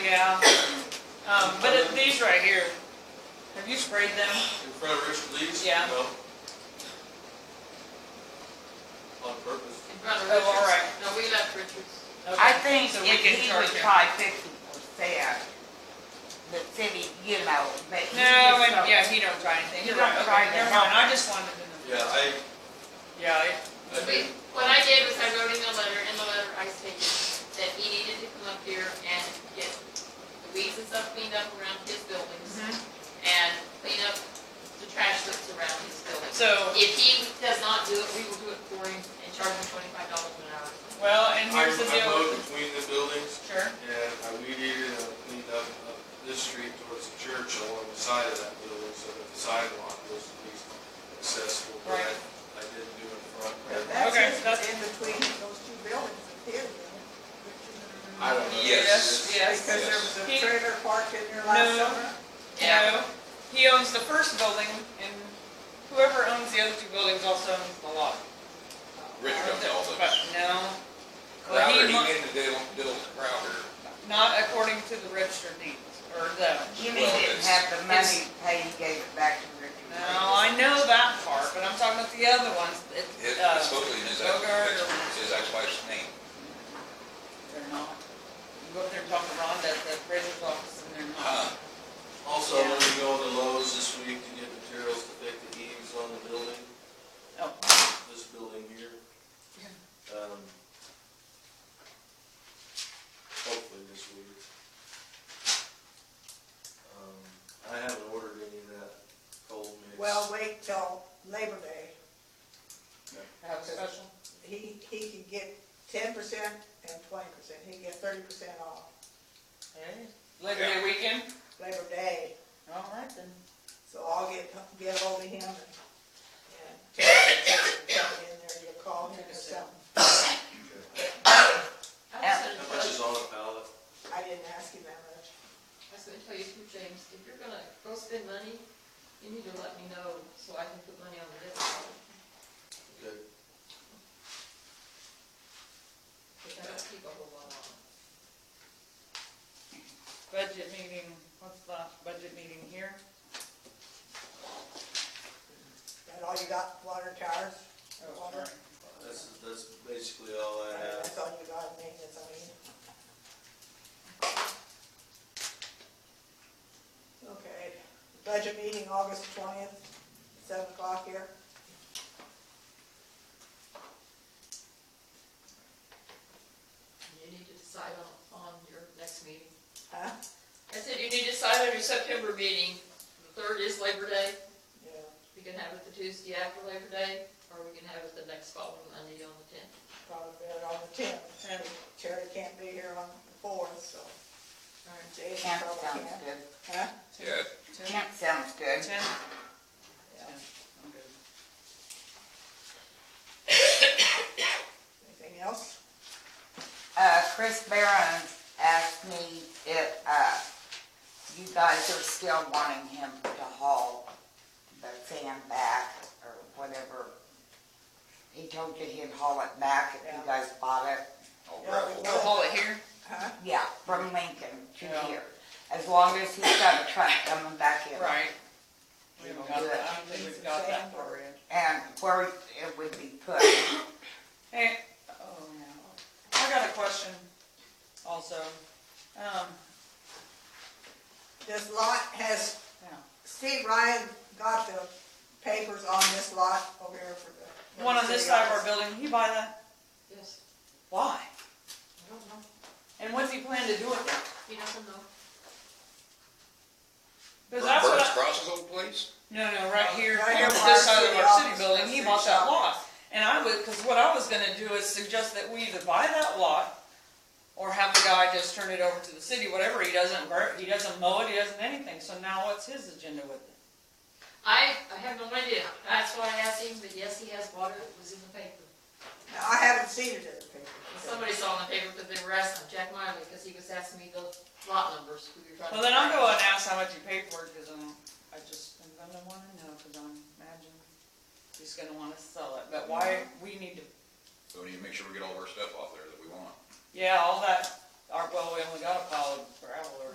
yeah. Um, but it- these right here, have you sprayed them? In front of Richard Lee's? Yeah. No. On purpose. In front of Oh, all Richards. right. No, we left Richards. I think So if we can he charge would him. try fifty percent, the city, you know, but he No, just and, don't- yeah, he don't try anything. You You're don't right, try okay, that. never mind, I just wanted to know. Yeah, I, Yeah, it- I We- think, What I did was I wrote in the letter, in the letter I stated that he needed to come up here and get the weeds and stuff cleaned up around his buildings Mm-hmm. and clean up the trash that's around his buildings. so, If he does not do it, we will do it for him and charge him twenty-five dollars an hour. well, and I here's the I deal mowed with, between the buildings sure, and I weeded and I cleaned up up this street towards the church along the side of that building so that the sidewalk was at least accessible. But Right. I, I didn't do it in front. But And that's Okay, just that's- in between those two buildings, it is, I don't know. yes, yes. Because there was a He- trailer park in there last No. summer. No, he owns the first building, and whoever owns the other two buildings also owns the lot. Rich owns all those. But no, Well, he Crowder, he mu- ended the building Crowder. not according to the registered deeds, or the, Jimmy Well, didn't it's- have the money it's- paid, he gave it back to Richard. no, I know that part, but I'm talking about the other ones. It- It- uh, It's supposedly his, Bogart or- it's his ex-wife's name. They're not. You go up there and talk to Rhonda at the appraiser's office, and they're Huh. not. Also, I'm gonna go to Lowe's this week to get materials to fix the eaves on the building. Oh, this building here. Um, Hopefully this week. Um, I haven't ordered any of that cold mix. Well, wait till Labor Day. have a special? He, he can get ten percent and twenty percent. He can get thirty percent off Hey, Labor Day weekend? Labor Day. All right then. So I'll get, get hold of him and, and come in there, you call him or something. I was How gonna tell much is you- on a pallet? I didn't ask him that much. I was gonna tell you too, James, if you're gonna go spend money, you need to let me know so I can put money on the list. Okay. Because I don't keep a whole lot on. Budget meeting, what's the budget meeting here? That all you got, water towers? Oh, Water? sorry. That's, that's basically all I have. That's all you got, maintenance, I mean. Okay, budget meeting, August twentieth, seven o'clock here. You need to decide on, on your next meeting. Huh? I said you need to decide on your September meeting. The third is Labor Day. Yeah, We can have it the Tuesday after Labor Day, or we can have it the next following Monday on the tenth. probably better on the tenth. Terry can't be here on the fourth, so All right. Jason Kent probably sounds can't. good, Huh? Yeah, Ten? Kent sounds good. Ten? Yeah. I'm good. Anything else? Uh, Chris Barron asked me if, uh, you guys are still wanting him to haul the sand back or whatever. He told you he'd haul it back if you Yeah. guys bought it. old Yeah, we gravel. We'll Oh, haul it here? Huh? Yeah, from Lincoln to Yeah. here. As long as he's got a truck coming back in. Right. We We haven't will got do that, it. I don't think we've got that far in. And where it would be put. Hey, oh, no. I got a question also. Um, This lot has, Yeah. Steve Ryan got the papers on this lot over here for the. one on this side of our building, he buy that, Yes, why? I don't know. And what's he plan to do with it? He doesn't know. Because that's what Burns I, Cross's old place? no, no, right here, Right here on where this our side of city our city office building, is, he city bought that shop. lot. And I would, because what I was gonna do is suggest that we either buy that lot or have the guy just turn it over to the city, whatever, he doesn't burn, he doesn't mow it, he doesn't anything, so now what's his agenda with it? I, I have no idea. That's why I asked him, but yes, he has water. It was in the paper. Now, I haven't seen it in the paper. Somebody saw in the paper because they were asking Jack Miley, because he was asking me the lot numbers. who you're trying to Well, then I'll find. go and ask how much you paid for it, cause I'm, I just, I'm gonna wanna know, cause I'm imagine he's gonna wanna sell it, but why, we need to, So we need to make sure we get all of our stuff off there that we want. yeah, all that our, well, we only got a pile of gravel or